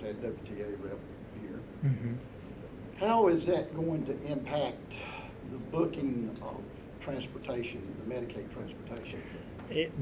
that WTA rep here. Hmm. How is that going to impact the booking of transportation, the Medicaid transportation? It,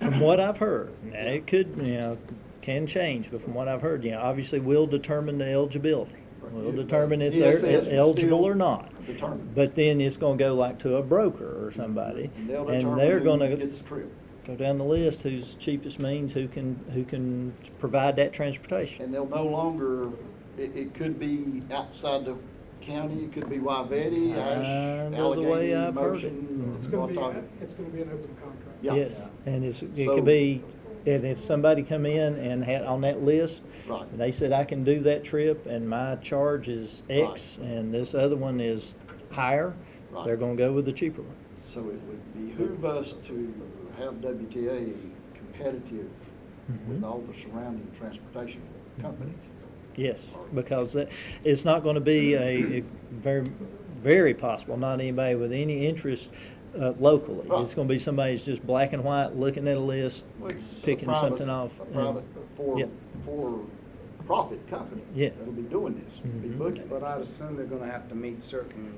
from what I've heard, now it could, you know, can change, but from what I've heard, you know, obviously we'll determine the eligibility. We'll determine if ESS they're will eligible still or not. Determine. But then it's gonna go like to a broker or somebody, And they'll and determine they're who gonna Gets the trip. go down the list, who's cheapest means, who can, who can provide that transportation. And they'll no longer, it, it could be outside the county, it could be Wyvetti, I Ash, know the Allegheny, way I've heard it. Motion. Mhm. It's gonna be, Watauga. it's gonna be an open contract. Yeah. Yes, and it's, it So- could be, and if somebody come in and had on that list, Right. and they said, I can do that trip and my charge is X Right. and this other one is higher, they're Right. gonna go with the cheaper one. So it would behoove Hmm. us to have WTA competitive with Mhm. all the surrounding transportation companies. Mm-hmm. Yes, because that, it's not gonna be a, a very, very possible, not anybody with any interest, uh, locally. Right. It's gonna be somebody's just black and white, looking at a list, Well, it's a picking private- something off. A and- private, for, Yep. for profit company. Yeah. That'll be doing this, be Mhm. booking. But I'd assume they're gonna have to meet certain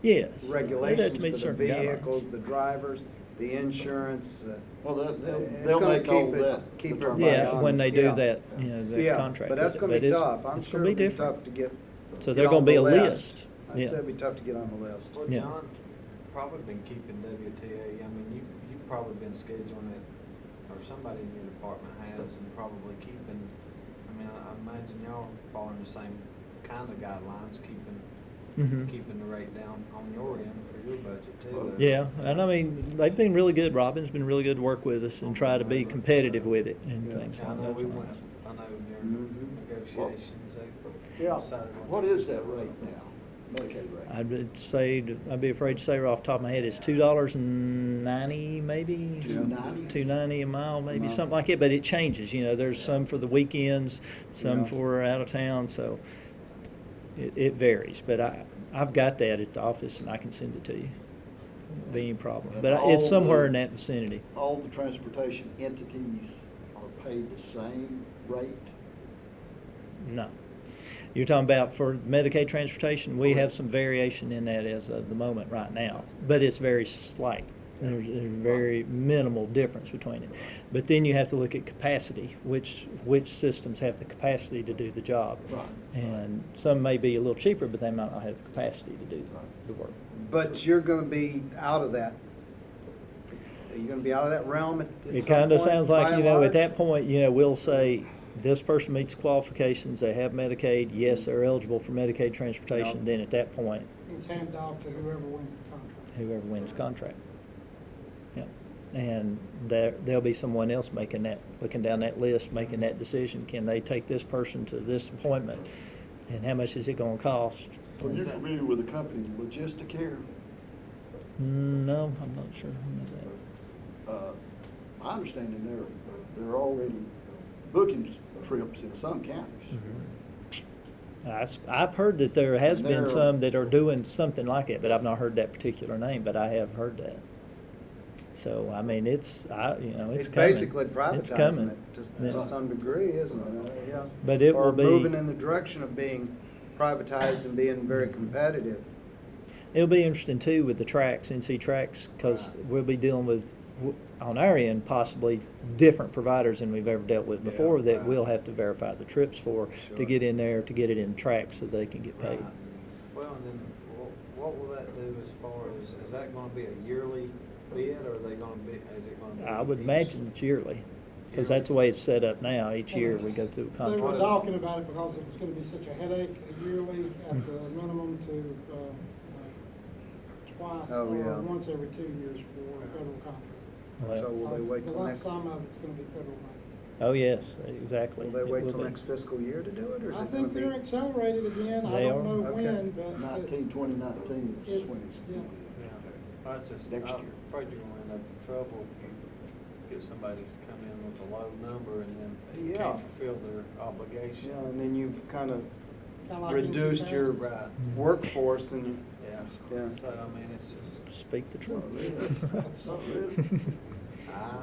Yes. They'd have to regulations meet for the certain guidelines. vehicles, the drivers, the insurance, uh, Well, they'll, they'll- It's they'll gonna make all keep it- that. keep it determined. Yeah, when they do Yeah. that, you know, the yeah, contract. but with that's it, gonna be it's- tough. I'm it's sure gonna it'll be different. tough to get. So get there's on gonna be the a list. I'd Yeah. say it'd be tough to get on the list. Well, Yeah. John, probably been keeping WTA, I mean, you, you've probably been scheduling it, or somebody in your department has, and probably keeping, I mean, I I imagine y'all are following the same kind of guidelines, keeping, Mhm. keeping the rate down on your end for your budget too. though. Yeah, and I mean, they've been really good, Robin's been really good to work with us and try to be competitive with it and Yeah. things I like know we went, that. I know Mhm. during negotiations, they Mm-hmm. Yeah. decided. What is that rate now, Medicaid rate? I'd say, I'd be afraid to say right off the top of my head, it's two dollars and ninety, maybe? Two ninety? Two ninety a mile, maybe, Mile. something like it, but it changes, you know, there's some for the weekends, some Yeah. for out of town, so it, it varies, but I, I've got that at the office and I can send it to you. Won't Be any problem, And but I- all it's somewhere the- in that vicinity. all the transportation entities are paid the same rate? No. You're talking about for Medicaid transportation, we have Correct. some variation in that as of the moment right now, but it's very slight. There's a very minimal difference between it. But then you have to look at capacity, which, which systems have the capacity to do the job. Right. And some may be a little cheaper, but they might not have the capacity to do Right. the work. But you're gonna be out of that. Are you gonna be out of that realm at at some It kind of point, sounds by like, you and know, large? at that point, you know, we'll say, this person meets qualifications, they have Medicaid, yes, they're eligible for Medicaid transportation, Yeah. then at that point, It's handed off to whoever wins the contract. whoever wins contract. Yeah, and there, there'll be someone else making that, looking down that list, making that decision. Can they take this person to this appointment? And how much is it gonna cost? Are you familiar with the company Logisticare? Mm, No, I'm not sure. on that. Uh, My understanding, they're, they're already booking trips in some counties. I've, I've heard that there has been There- some that are doing something like it, but I've not heard that particular name, but I have heard that. So, I mean, it's, I, you know, it's It's coming. basically It's coming. privatizing it to, Yeah. to some degree, isn't it? Uh, Yeah. But it Or will be- Moving in the direction of being privatized and being very competitive. It'll be interesting too with the tracks, NC tracks, because Right. we'll be dealing with, w- on our end, possibly different providers than we've ever dealt with Yeah, before that right. we'll have to verify the trips for, to Sure. get in there, to get it in tracks so they can get paid. Right. Well, and then wha- what will that do as far as, is that gonna be a yearly bid or are they gonna be, is it gonna be? I would each- imagine it's yearly, because that's the way it's set up now. Each year we go through a They were contract. talking about it because it was gonna be such a headache yearly at the Hmm. minimum to, uh, uh, twice Oh, yeah. or once every two years for federal contracts. So Well, will they Because wait till the next, Some of it's gonna be federal money. Oh, yes, exactly. will they It wait will till be. next fiscal year to do it, or is I it gonna think be? they're accelerated again, I They don't are? know Okay. when, but. uh, it- Nineteen, twenty nineteen, It- twenties. yeah. Yeah. That's just, I'm Next year. afraid you're gonna end up in trouble if you get somebody that's come in with a low number and then Yeah. can't fulfill their Yeah, obligation. and then you've kind of kinda like Reduced NC your- uh, Transit. Right, workforce and, yeah. Yeah. So, I mean, it's just, Speak the Not truth. really. I, I,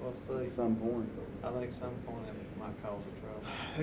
we'll at see. some point. I think some point it might cause a trouble.